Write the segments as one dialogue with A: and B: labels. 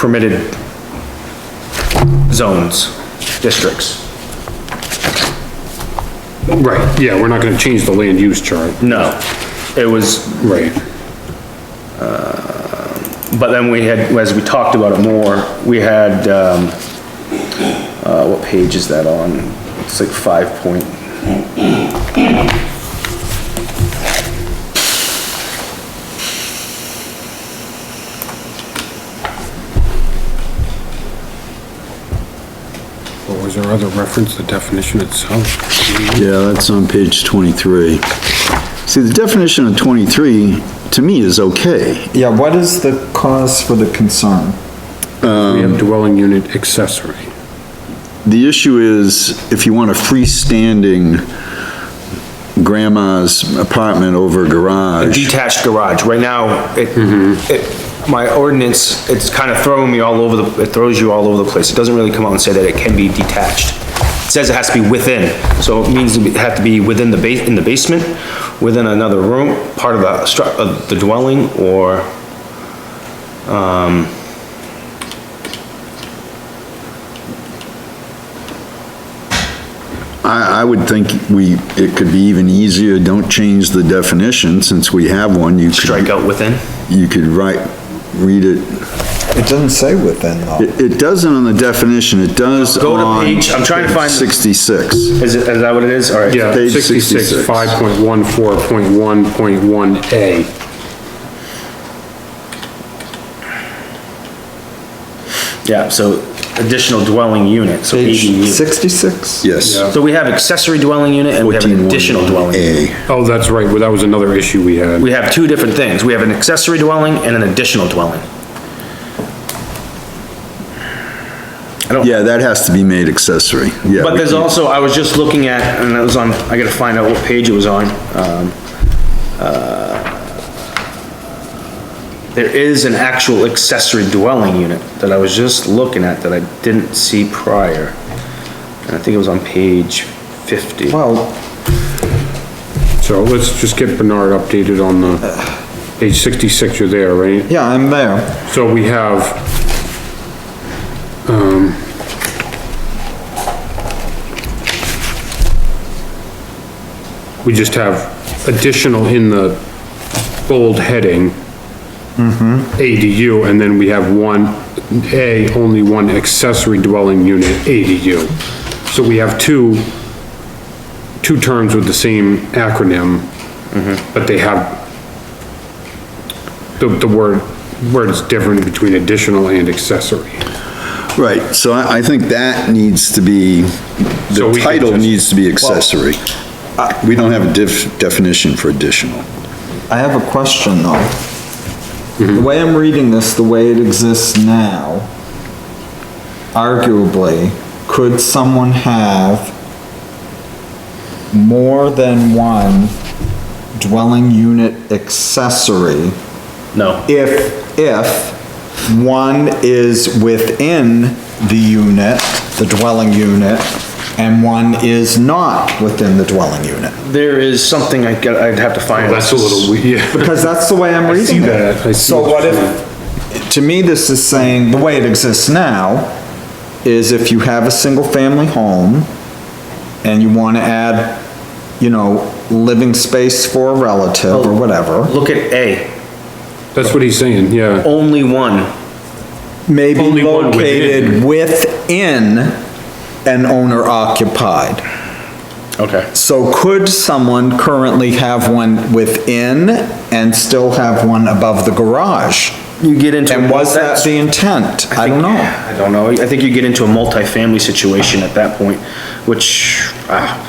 A: permitted zones, districts.
B: Right, yeah, we're not gonna change the land use chart,
A: No, it was, uh,
B: right.
A: but then we had, as we talked about it more, we had, um, uh, what page is that on? It's like five point.
B: Or was there other reference, the definition itself?
C: Yeah, that's on page 23. See, the definition of 23, to me, is okay.
D: Yeah, what is the cause for the concern?
B: We have dwelling unit accessory.
C: The issue is, if you want a freestanding grandma's apartment over garage,
A: detached garage. Right now, it, Mm-hmm. it, my ordinance, it's kind of throwing me all over the, it throws you all over the place. It doesn't really come out and say that it can be detached. It says it has to be within, so it means it have to be within the base, in the basement, within another room, part of the stru, of the dwelling, or,
C: I, I would think we, it could be even easier, don't change the definition, since we have one, you
A: strike
C: could,
A: out within.
C: you could write, read it.
D: It doesn't say within though.
C: It, it doesn't on the definition, it does
A: Go to
C: on
A: page- I'm trying to find the-
C: 66.
A: Is it, is that what it is? All right.
B: Yeah,
C: Page
B: 66,
C: 66.
B: 5.14.1.1A.
A: Yeah, so additional dwelling unit, so
D: Page
A: ADU.
D: sixty-six?
C: Yes.
A: So we have accessory dwelling unit and we have an additional dwelling. unit.
C: A.
B: Oh, that's right, well, that was another issue we had.
A: We have two different things. We have an accessory dwelling and an additional dwelling.
C: Yeah, that has to be made accessory, yeah.
A: But there's also, I was just looking at, and it was on, I gotta find out what page it was on, um, uh, there is an actual accessory dwelling unit that I was just looking at that I didn't see prior. And I think it was on page fifty.
D: Well,
B: So let's just get Bernard updated on the, page 66, you're there, right?
D: yeah, I'm there.
B: So we have, um, we just have additional in the bold heading. ADU, and then we have one, A, only one accessory dwelling unit, ADU. So we have two, two terms with the same acronym, but they have the, the word, word is different between additional and accessory.
C: Right, so I, I think that needs to be,
B: So
C: the
B: we could
C: title
B: just-
C: needs to be accessory. We don't have a def, definition for additional.
D: I have a question though. The way I'm reading this, the way it exists now, arguably, could someone have more than one dwelling unit accessory
A: No,
D: if, if one is within the unit, the dwelling unit, and one is not within the dwelling unit.
A: there is something I got, I'd have to find.
B: That's a little weird, yeah.
D: Because that's the way I'm reading
B: that, I
D: it.
B: see
D: So
B: what
D: what
B: you're
D: if, to me, this is saying, the way it exists now, is if you have a single-family home and you want to add, you know, living space for a relative or whatever,
A: Look at A,
B: That's what he's saying, yeah.
A: only one.
D: may
B: Only
D: be
B: one
D: located within an owner occupied.
A: Okay.
D: So could someone currently have one within and still have one above the garage?
A: You get into.
D: And was
A: that's-
D: that the intent? I don't know.
A: I don't know. I think you get into a multifamily situation at that point, which, ah,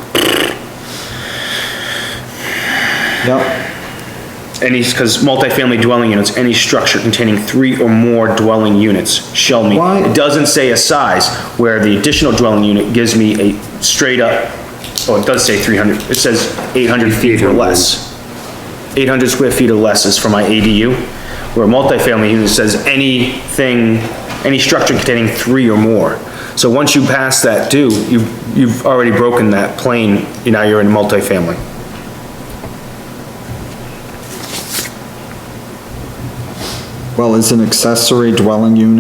D: Yep,
A: any, because multifamily dwelling units, any structure containing three or more dwelling units shall meet.
D: Why-
A: It doesn't say a size, where the additional dwelling unit gives me a straight up, oh, it does say three hundred, it says eight hundred feet or
B: 800.
A: less. Eight hundred square feet or less is for my ADU, where multifamily unit says anything, any structure containing three or more. So once you pass that due, you've, you've already broken that plane, you now you're in multifamily.
D: well, is an accessory dwelling unit